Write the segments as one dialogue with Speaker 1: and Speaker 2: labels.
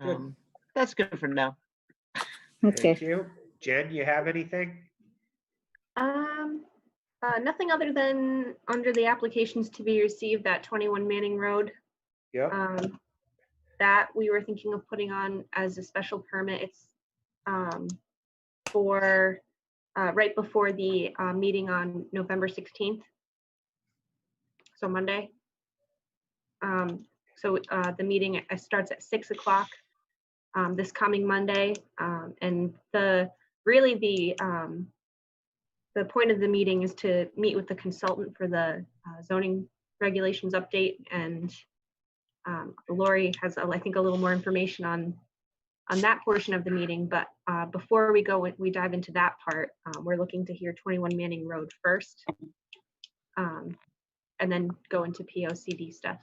Speaker 1: Good.
Speaker 2: Um, That's good for now.
Speaker 3: Okay,
Speaker 4: Thank you. Jen, you have anything?
Speaker 5: Um, uh, nothing other than under the applications to be received, that twenty-one Manning Road,
Speaker 4: Yeah,
Speaker 5: um, that we were thinking of putting on as a special permit. It's, um, for, uh, right before the, uh, meeting on November sixteenth. So Monday. Um, so, uh, the meeting uh, starts at six o'clock, um, this coming Monday. Um, and the, really the, um, the point of the meeting is to meet with the consultant for the uh, zoning regulations update and um, Lori has, uh, I think, a little more information on, on that portion of the meeting, but uh, before we go, we dive into that part, um, we're looking to hear 21 Manning Road first. um, And then go into POCD stuff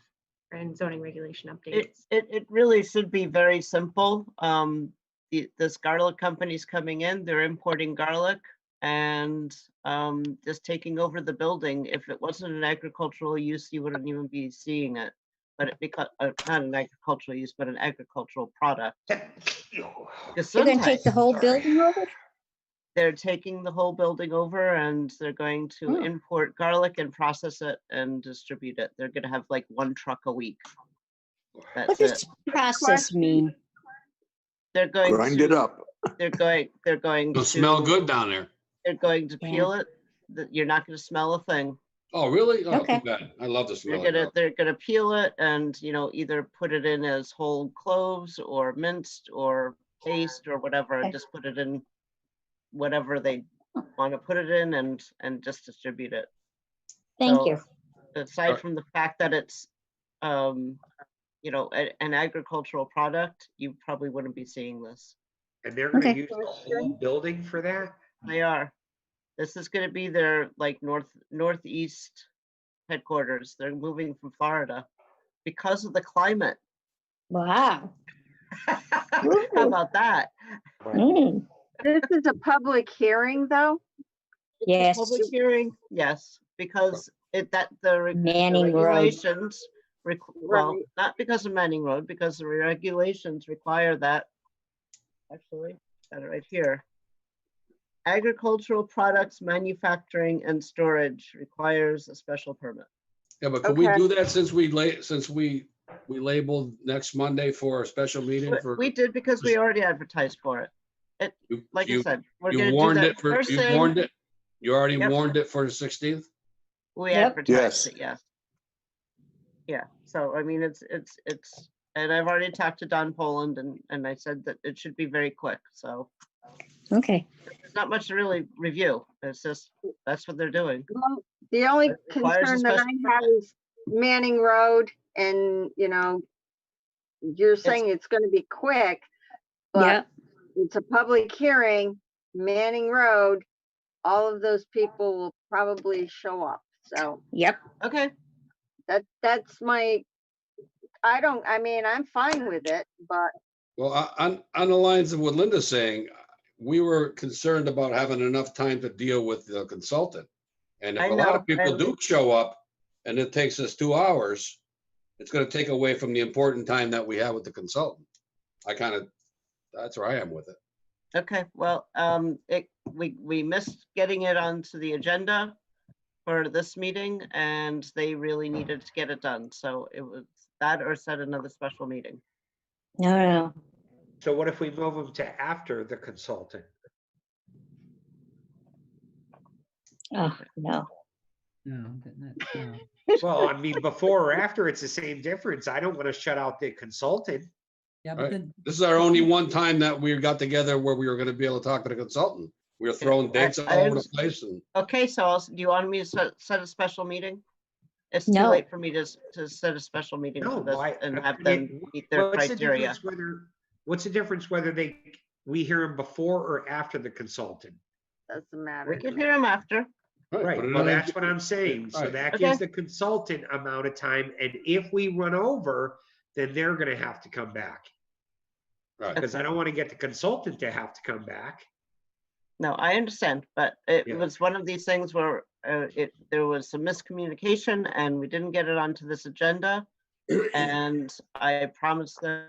Speaker 5: and zoning regulation
Speaker 2: It,
Speaker 5: updates.
Speaker 2: it, it really should be very simple. Um, the, this garlic company's coming in, they're importing garlic and, um, just taking over the building. If it wasn't an agricultural use, you wouldn't even be seeing it. But it because, uh, not an agricultural use, but an agricultural product.
Speaker 3: you're gonna take the
Speaker 2: Gesundheit.
Speaker 3: whole building over?
Speaker 2: They're taking the whole building over and they're going to
Speaker 3: Oh.
Speaker 2: import garlic and process it and distribute it. They're gonna have like one truck a week.
Speaker 3: What
Speaker 2: That's it.
Speaker 3: does process mean?
Speaker 2: They're going to.
Speaker 6: Grind it up.
Speaker 2: They're going, they're going to.
Speaker 1: It'll smell good down there.
Speaker 2: They're going to
Speaker 3: Yeah.
Speaker 2: peel it. that You're not gonna smell a thing.
Speaker 1: Oh, really? Oh,
Speaker 3: Okay.
Speaker 1: too bad. I love the smell.
Speaker 2: They're
Speaker 1: of
Speaker 2: gonna,
Speaker 1: garlic.
Speaker 2: they're gonna peel it and, you know, either put it in as whole cloves or minced or paste or whatever, and
Speaker 3: Okay.
Speaker 2: just put it in whatever they wanna put it in and, and just distribute it.
Speaker 3: Thank
Speaker 2: So,
Speaker 3: you.
Speaker 2: Aside
Speaker 1: Alright.
Speaker 2: from the fact that it's, um, you know, a- an agricultural product, you probably wouldn't be seeing this.
Speaker 4: and they're gonna
Speaker 3: Okay.
Speaker 4: use the whole building for that?
Speaker 2: They are. This is gonna be their like north, northeast headquarters. They're moving from Florida because of the climate.
Speaker 3: Wow.
Speaker 2: How about that?
Speaker 3: Mm,
Speaker 7: This is a public hearing, though?
Speaker 2: It's a
Speaker 3: Yes.
Speaker 2: Public hearing, yes, because it, that the. reg- the
Speaker 3: Manning Road.
Speaker 2: regulations requ- Well,
Speaker 7: Right.
Speaker 2: not because of Manning Road, because the regulations require that. Actually, got it right here. Agricultural products manufacturing and storage requires a special permit.
Speaker 1: Yeah, but can we
Speaker 7: Okay.
Speaker 1: do that since we la, since we, we labeled next Monday for a special meeting
Speaker 2: But
Speaker 1: for?
Speaker 2: We did because we already advertised for it.
Speaker 1: you-
Speaker 2: Like I
Speaker 1: you-
Speaker 2: said, we're
Speaker 1: You
Speaker 2: gonna do
Speaker 1: warned it
Speaker 2: that
Speaker 1: for,
Speaker 2: first
Speaker 1: you warned
Speaker 2: thing.
Speaker 1: it. You already
Speaker 2: Yep.
Speaker 1: warned it for the sixteenth?
Speaker 2: We
Speaker 3: Yep.
Speaker 2: advertised
Speaker 6: Yes.
Speaker 2: it, yes. Yeah, so I mean, it's, it's, it's, and I've already talked to Don Poland and, and I said that it should be very quick, so.
Speaker 3: Okay,
Speaker 2: There's not much to really review. It's just, that's what they're doing.
Speaker 7: Well, The only
Speaker 2: It requires a
Speaker 7: concern that
Speaker 2: special
Speaker 7: I have is Manning Road and, you know, you're saying it's gonna be quick,
Speaker 3: yeah,
Speaker 7: but it's a public hearing, Manning Road, all of those people will probably show up. So
Speaker 3: yep,
Speaker 2: Okay,
Speaker 7: that, that's my, I don't, I mean, I'm fine with it, but
Speaker 1: Well, o- on, on the lines of what Linda's saying, we were concerned about having enough time to deal with the consultant. And
Speaker 2: I
Speaker 1: if a lot
Speaker 2: know,
Speaker 1: of people
Speaker 2: and-
Speaker 1: do show up and it takes us two hours, it's gonna take away from the important time that we have with the consultant. I kind of, that's where I am with it.
Speaker 2: okay, well, um, it, we, we missed getting it onto the agenda for this meeting and they really needed to get it done, so it was that or set another special meeting.
Speaker 3: no, Oh, no,
Speaker 4: So what if we move them to after the consultant?
Speaker 3: oh, no.
Speaker 8: No, but that's, no.
Speaker 4: Well, I mean, before or after, it's the same difference. I don't want to shut out the consultant.
Speaker 8: Yeah,
Speaker 1: Right.
Speaker 8: but then,
Speaker 1: This is our only one time that we got together where we were gonna be able to talk to the consultant. We were throwing dates all
Speaker 2: I- I
Speaker 1: over the
Speaker 2: understand.
Speaker 1: place and
Speaker 2: Okay, so I'll s- do you want me to set, set a special meeting? It's too
Speaker 3: No.
Speaker 2: late for me to, s- to set a special meeting
Speaker 4: No,
Speaker 2: for this
Speaker 4: why-
Speaker 2: and
Speaker 4: I
Speaker 2: have
Speaker 4: mean,
Speaker 2: them meet their
Speaker 4: What's the
Speaker 2: criteria.
Speaker 4: difference whether, what's the difference whether they, we hear them before or after the consultant?
Speaker 7: doesn't
Speaker 2: We
Speaker 7: matter.
Speaker 2: can hear them after.
Speaker 1: Right,
Speaker 4: Right,
Speaker 1: put it
Speaker 4: well,
Speaker 1: on the-
Speaker 4: that's what I'm saying. So
Speaker 1: Right.
Speaker 4: that
Speaker 2: Okay.
Speaker 4: gives the consultant amount of time, and if we run over, then they're gonna have to come back.
Speaker 1: Right.
Speaker 4: Because Uh, I don't want to get the consultant to have to come back.
Speaker 2: No, I understand, but it
Speaker 4: Yeah.
Speaker 2: was one of these things where uh, it, there was some miscommunication and we didn't get it onto this agenda. And I promised them